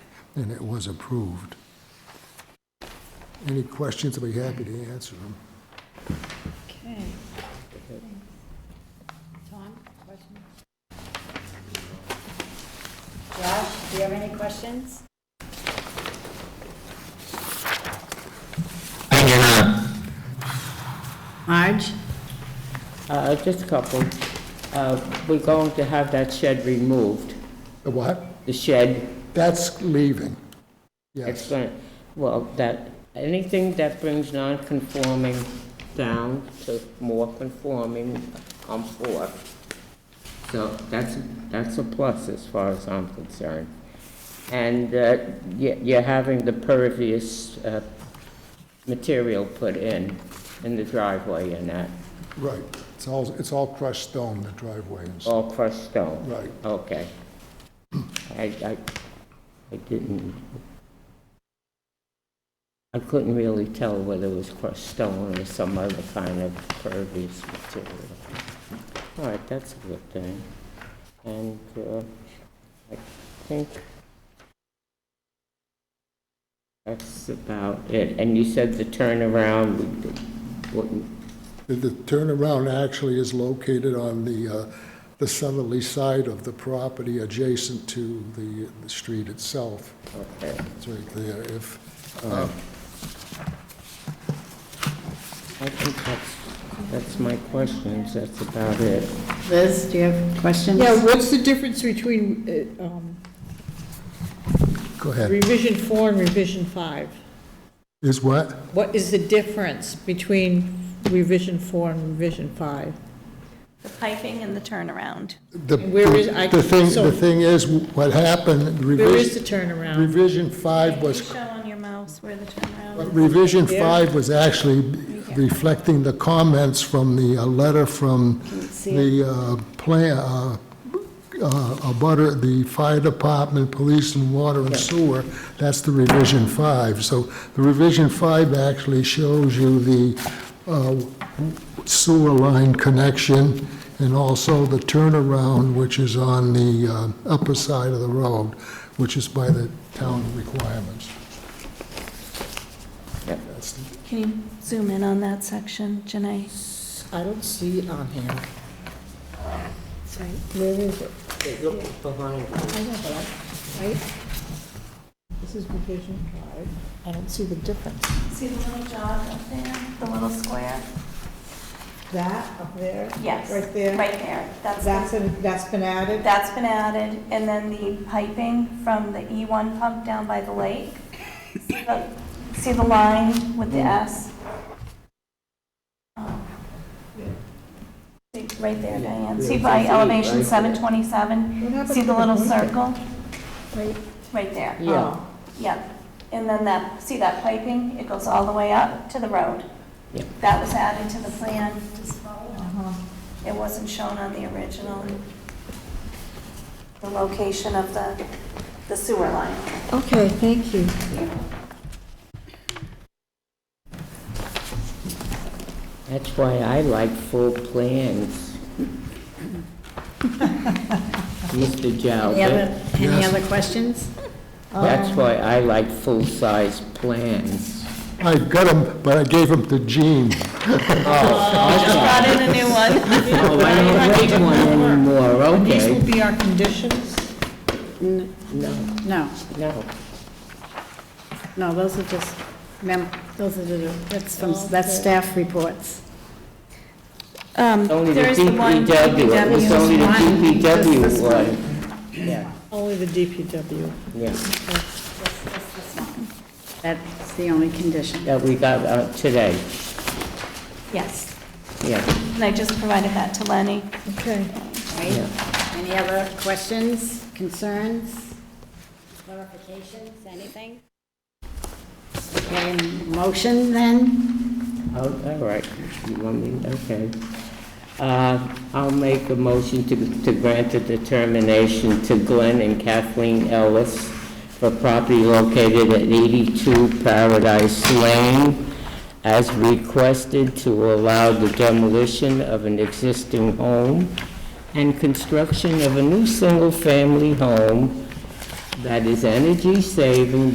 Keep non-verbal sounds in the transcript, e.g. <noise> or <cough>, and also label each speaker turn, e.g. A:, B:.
A: and it was approved. Any questions, I'd be happy to answer them.
B: Okay. Tom, questions? Josh, do you have any questions? Marge?
C: Uh, Just a couple. Uh, We're going to have that shed removed,
A: The what?
C: the shed.
A: That's leaving.
C: It's
A: Yes,
C: going, to well, that, anything that brings non-conforming down to more conforming, I'm for. So that's, that's a plus as far as I'm concerned. And uh, you- you're having the pervious uh, material put in, in the driveway and that,
A: right. It's all, it's all crushed stone, the driveway and stuff.
C: all crushed stone.
A: Right.
C: Okay. I, I, I didn't, I couldn't really tell whether it was crushed stone or some other kind of pervious material. All right, that's a good thing. And, uh, I think that's about it. And you said the turnaround would- wouldn't,
A: The- The turnaround actually is located on the, uh, the southerly side of the property adjacent to the, the street itself.
C: okay.
A: It's right there. If, uh,
C: I think that's, that's my questions, that's about it.
B: Liz, do you have questions?
D: Yeah, what's the difference between uh, um,
A: go ahead.
D: revision four and revision five?
A: Is what?
D: What is the difference between revision four and revision five?
E: The piping and the turnaround.
A: The,
D: Where is- I-
A: the thing,
D: so-
A: the thing is, what happened,
D: Where is the
A: revision,
D: turnaround?
A: revision five
E: Can you
A: was
E: show on your mouse where the turnaround
A: But
E: is?
A: Revision 5 was actually reflecting the comments from the uh, letter from the uh, plan, uh, uh, abutter, the fire department, police and water and sewer. That's the revision 5. So the revision 5 actually shows you the uh, sewer line connection and also the turnaround, which is on the uh, upper side of the road, which is by the town requirements.
C: Yep.
A: That's the-
E: Can you zoom in on that section, Janae?
D: I don't see it on here.
C: Where is it? It looks behind you.
D: I know, but I, right? This is revision five. I don't see the difference.
E: See the little jog up there, the little square?
D: That up there?
E: Yes.
D: Right there?
E: Right there. That's,
D: That's,
E: the-
D: been- that's been added?
E: that's been added, and then the piping from the E1 pump down by the lake. See the- See the line with the S? Um, see, Right there, Diane. See by elevation 727?
D: What happened
E: See
D: to
E: the little
D: one-
E: circle?
D: Right. Oh,
E: Right there.
C: Yeah.
E: Yep, and then that, see that piping, it goes all the way up to the road.
C: Yep.
E: That was added to the plan.
D: uh-huh.
E: It wasn't shown on the original, the location of the, the sewer line.
B: Okay, thank you.
C: That's why I like full plans. Mr.
B: Any
C: Jalbert,
B: other, any
A: Yes.
B: other questions?
E: um,
C: that's why I like full-size plans.
A: I got them, but I gave them to Gene.
E: Oh, Brought in a new one.
C: <laughs> Oh, I don't need one anymore,
E: <laughs>
D: These will
C: okay.
D: be our conditions?
C: No,
B: No,
C: no.
B: no, those are just, mem, those are the, that's from, that's staff reports.
C: Only the
E: Um, There is the one
C: DPW, it was
E: DPW.
C: only the
B: one, just
C: DPW
B: this one.
C: one. Yeah,
D: Only the DPW.
C: yeah.
B: That's the only condition.
C: That we got uh, today,
E: Yes,
C: yeah,
E: and I just provided that to Lenny.
D: Okay.
C: yeah.
B: Any other questions, concerns, clarifications, anything? Okay, motion then?
C: Oh, All right, you want me, okay. Uh, I'll make a motion to to grant a determination to Glenn and Kathleen Ellis for property located at 82 Paradise Lane as requested to allow the demolition of an existing home and construction of a new single-family home that is energy saving